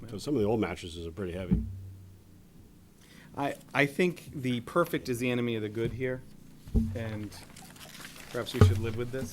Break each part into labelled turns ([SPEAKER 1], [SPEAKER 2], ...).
[SPEAKER 1] Because some of the old mattresses are pretty heavy.
[SPEAKER 2] I, I think the perfect is the enemy of the good here, and perhaps we should live with this.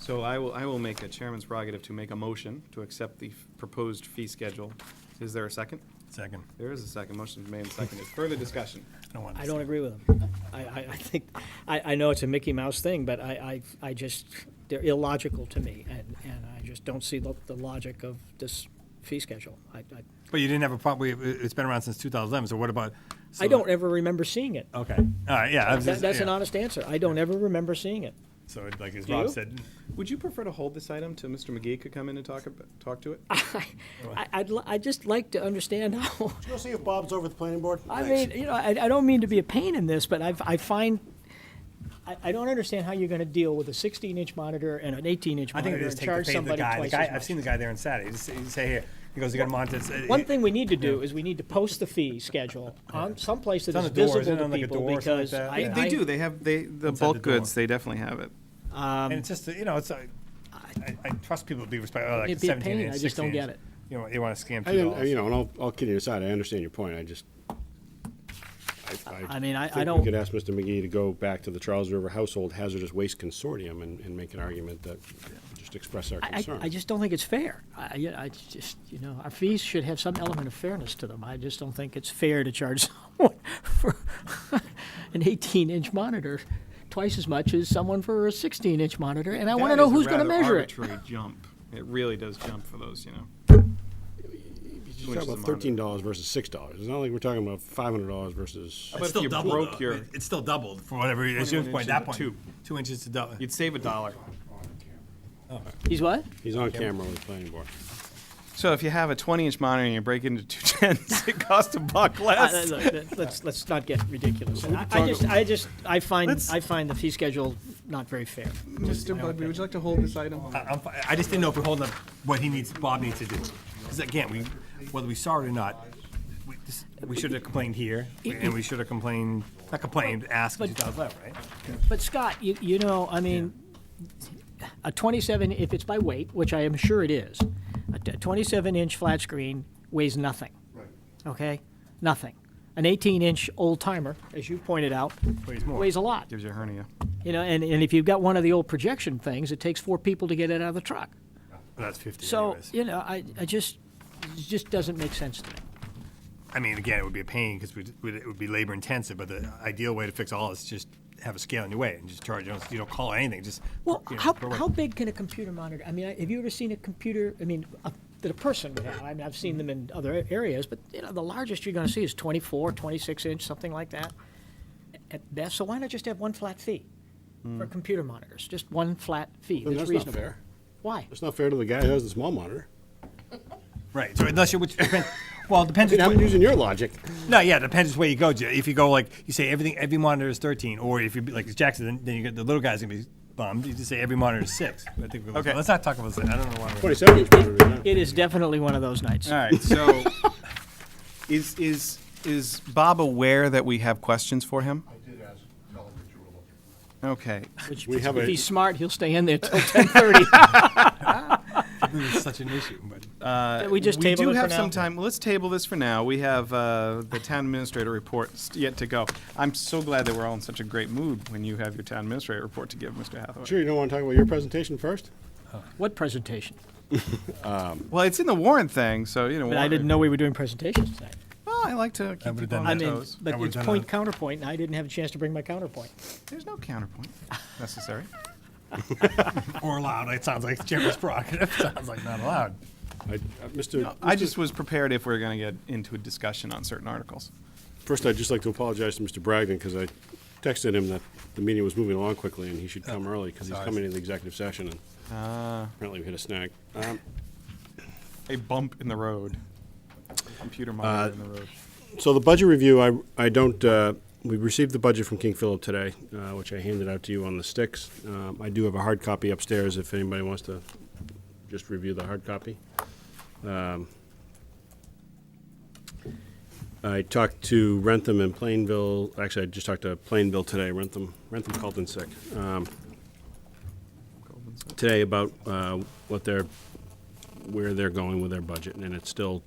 [SPEAKER 2] So I will, I will make a chairman's prerogative to make a motion to accept the proposed fee schedule. Is there a second?
[SPEAKER 3] Second.
[SPEAKER 2] There is a second. Motion made and seconded. Further discussion?
[SPEAKER 3] I don't want
[SPEAKER 4] I
[SPEAKER 3] to
[SPEAKER 4] don't
[SPEAKER 3] say.
[SPEAKER 4] agree with him. I, I, I think, I, I know it's a Mickey Mouse thing, but I, I, I just, they're illogical to me, and, and I just don't see the, the logic of this fee schedule. I, I,
[SPEAKER 3] But you didn't have a problem, it's been around since 2011, so what about? so-
[SPEAKER 4] I don't ever remember seeing it.
[SPEAKER 3] Okay, all right, yeah. I was
[SPEAKER 4] That,
[SPEAKER 3] just-
[SPEAKER 4] that's an
[SPEAKER 3] yeah.
[SPEAKER 4] honest answer. I don't ever remember seeing it.
[SPEAKER 3] So like as
[SPEAKER 2] Do
[SPEAKER 3] Rob
[SPEAKER 2] you?
[SPEAKER 3] said,
[SPEAKER 2] Would you prefer to hold this item till Mr. McGee could come in and talk, ab- talk to it?
[SPEAKER 4] I, I'd, li- I'd just like to understand how,
[SPEAKER 1] Go see if Bob's over at the planning board.
[SPEAKER 4] I mean, you know, I, I don't mean to be a pain in this, but I've, I find, I, I don't understand how you're gonna deal with a sixteen inch monitor and an eighteen inch
[SPEAKER 3] I think
[SPEAKER 4] monitor
[SPEAKER 3] they just take the
[SPEAKER 4] and charge
[SPEAKER 3] pay to the
[SPEAKER 4] somebody
[SPEAKER 3] guy. The
[SPEAKER 4] twice
[SPEAKER 3] guy,
[SPEAKER 4] as
[SPEAKER 3] I've
[SPEAKER 4] much.
[SPEAKER 3] seen the guy there on Saturday, He's- he say here, he goes, you got a monitor. it's- it-
[SPEAKER 4] One
[SPEAKER 3] it-
[SPEAKER 4] thing we need to do is we need to post the fee schedule on someplace that
[SPEAKER 3] It's on
[SPEAKER 4] is
[SPEAKER 3] the door,
[SPEAKER 4] visible
[SPEAKER 3] isn't it?
[SPEAKER 4] to
[SPEAKER 3] On, like, a
[SPEAKER 4] people
[SPEAKER 3] door or something like
[SPEAKER 4] because
[SPEAKER 3] that?
[SPEAKER 4] I.
[SPEAKER 3] Yeah.
[SPEAKER 2] They do. They have, they, the
[SPEAKER 3] Inside the
[SPEAKER 2] bulk goods,
[SPEAKER 3] door.
[SPEAKER 2] they definitely have it.
[SPEAKER 3] And it's just, you know, it's, uh, I, I trust people to be respectful, like
[SPEAKER 4] It'd be a
[SPEAKER 3] 17
[SPEAKER 4] pain,
[SPEAKER 3] inch,
[SPEAKER 4] I just don't
[SPEAKER 3] 16
[SPEAKER 4] get
[SPEAKER 3] inch.
[SPEAKER 4] it.
[SPEAKER 3] You know, you want to scam
[SPEAKER 1] I didn't,
[SPEAKER 3] $2.
[SPEAKER 1] you know, and all, all kidding aside, I understand your point, I just.
[SPEAKER 4] I mean, I- I
[SPEAKER 1] think we
[SPEAKER 4] don't-
[SPEAKER 1] could ask Mr. McGee to go back to the Charles River Household Hazardous Waste Consortium and, and make an argument that, just express our
[SPEAKER 4] I,
[SPEAKER 1] concern.
[SPEAKER 4] I just don't think it's fair. I, I- I just, you know, our fees should have some element of fairness to them. I just don't think it's fair to charge someone for an 18-inch monitor twice as much as someone for a 16-inch monitor, and I want to know who's going to measure it.
[SPEAKER 2] Arbitrary jump. It really does jump for those, you know.
[SPEAKER 1] You're talking about thirteen dollars versus six dollars, it's not like we're talking about five hundred dollars versus,
[SPEAKER 2] But if you broke your,
[SPEAKER 3] It's still doubled for whatever, it's your
[SPEAKER 2] 21
[SPEAKER 3] point,
[SPEAKER 2] inches
[SPEAKER 3] that
[SPEAKER 2] to
[SPEAKER 3] point,
[SPEAKER 2] two.
[SPEAKER 3] two inches to double.
[SPEAKER 2] you'd save a dollar.
[SPEAKER 4] He's what?
[SPEAKER 1] he's on camera with the planning board.
[SPEAKER 2] So if you have a 20 inch monitor and you break it into two tens, it costs a buck
[SPEAKER 4] I- I-
[SPEAKER 2] less.
[SPEAKER 4] look, let- Let's, let's not get ridiculous.
[SPEAKER 1] we
[SPEAKER 4] I
[SPEAKER 1] could
[SPEAKER 4] I
[SPEAKER 1] talk
[SPEAKER 4] just,
[SPEAKER 1] about-
[SPEAKER 4] I just, I find,
[SPEAKER 2] Let's-
[SPEAKER 4] I find the fee schedule not very fair.
[SPEAKER 2] Mr. Budby, would you like to hold this item?
[SPEAKER 3] I- I'm, fi- I just didn't know if we're holding up what he needs, Bob needs to do. Because again, we, whether we saw it or not, we, this- we should have complained here, and we should have complained, not complained, asked in
[SPEAKER 4] But-
[SPEAKER 3] 2011, right?
[SPEAKER 4] But Scott, you, you know, I mean, a 27, if it's by weight, which I am sure it is, a t- 27-inch flat screen weighs nothing. Right. Okay? Nothing. An 18-inch old timer, as you pointed out,
[SPEAKER 3] Weighs more.
[SPEAKER 4] weighs a lot.
[SPEAKER 2] Gives you a hernia.
[SPEAKER 4] You know, and, and if you've got one of the old projection things, it takes four people to get it out of the truck.
[SPEAKER 3] That's 50
[SPEAKER 4] So,
[SPEAKER 3] anyways.
[SPEAKER 4] you know, I, I just, it just doesn't make sense to me.
[SPEAKER 3] I mean, again, it would be a pain because it would be labor intensive, but the ideal way to fix all is just have a scale in your way and just charge, you don't, you don't call it anything, just.
[SPEAKER 4] Well,
[SPEAKER 3] you know,
[SPEAKER 4] how,
[SPEAKER 3] per weight.
[SPEAKER 4] how big can a computer monitor? I mean, I- have you ever seen a computer? I mean, a, that a person would have. I mean, I've seen them in other a- areas, but you know, the largest you're going to see is 24, 26 inch, something like that, at best. So why not just have one flat fee for computer monitors? Just one flat fee.
[SPEAKER 1] Hmm. Then that's
[SPEAKER 4] that's
[SPEAKER 1] not
[SPEAKER 4] reasonable.
[SPEAKER 1] fair,
[SPEAKER 4] Why?
[SPEAKER 1] that's not fair to the guy who has the small monitor,
[SPEAKER 3] Right, so unless you, which, depends- well, it depends.
[SPEAKER 1] I mean,
[SPEAKER 3] which
[SPEAKER 1] I'm
[SPEAKER 3] way-
[SPEAKER 1] using your logic,
[SPEAKER 3] No, yeah, it depends which way you go. Jay. If you go like you say everything, every monitor is thirteen, or if you be like Jackson, then, then you get the little guy's gonna be bummed. You just say every monitor is six. I think we're,
[SPEAKER 2] Okay.
[SPEAKER 3] Let's not talk about that. I don't know why. We're,
[SPEAKER 1] twenty-seven inch monitor, yeah.
[SPEAKER 4] It is definitely one of those nights.
[SPEAKER 2] All
[SPEAKER 1] Ah,
[SPEAKER 2] right, so is, is, is Bob aware that we have questions for him?
[SPEAKER 5] I did ask, tell them that you were looking.
[SPEAKER 2] Okay.
[SPEAKER 4] Which,
[SPEAKER 1] We have
[SPEAKER 4] if
[SPEAKER 1] a-
[SPEAKER 4] he's smart, he'll stay in there till 10:30.
[SPEAKER 3] it's such an issue, but
[SPEAKER 1] Uh,
[SPEAKER 4] we just
[SPEAKER 2] we
[SPEAKER 4] table
[SPEAKER 2] do
[SPEAKER 4] it
[SPEAKER 2] have
[SPEAKER 4] for
[SPEAKER 2] some
[SPEAKER 4] now.
[SPEAKER 2] time. Let's table this for now. We have uh, the town administrator report st- yet to go. I'm so glad that we're all in such a great mood when you have your town administrator report to give, Mr. Hathaway.
[SPEAKER 1] Sure, you don't wanna talk about your presentation first?
[SPEAKER 4] What presentation?
[SPEAKER 2] Well, it's in the Warren thing, so you know.
[SPEAKER 4] But I
[SPEAKER 2] warrant-
[SPEAKER 4] didn't know we were doing presentations tonight.
[SPEAKER 2] Well, I like to
[SPEAKER 3] I
[SPEAKER 2] keep
[SPEAKER 3] would've
[SPEAKER 2] people on
[SPEAKER 3] done
[SPEAKER 4] I
[SPEAKER 3] that.
[SPEAKER 2] their
[SPEAKER 4] mean,
[SPEAKER 2] toes.
[SPEAKER 4] but
[SPEAKER 3] I would've
[SPEAKER 4] it's
[SPEAKER 1] uh,
[SPEAKER 3] done
[SPEAKER 4] point
[SPEAKER 3] that.
[SPEAKER 4] counterpoint, and I didn't have a chance to bring my counterpoint.
[SPEAKER 2] There's no counterpoint necessary.
[SPEAKER 3] or allowed. It sounds like Jeremy's prerogative. sounds like not allowed.
[SPEAKER 1] I, uh, Mr.
[SPEAKER 2] I just was prepared if we were going to get into a discussion on certain articles.
[SPEAKER 1] First, I'd just like to apologize to Mr. Bragdon because I texted him that the meeting was moving along quickly and he should
[SPEAKER 2] Oh,
[SPEAKER 1] come early because he's
[SPEAKER 3] sorry.
[SPEAKER 1] coming to the executive session and
[SPEAKER 2] Uh.
[SPEAKER 1] apparently we hit a snag. Um,
[SPEAKER 2] A bump in the road. Computer monitor in the road.
[SPEAKER 1] So the budget review, I, I don't, uh, we received the budget from King Philip today, uh, which I handed out to you on the sticks. Um, I do have a hard copy upstairs if anybody wants to just review the hard copy. Um, I talked to Rentham and Plainville, actually, I just talked to Plainville today, Rentham, Rentham called in sick, um, today about, uh, what their, where they're going with their budget, and it's still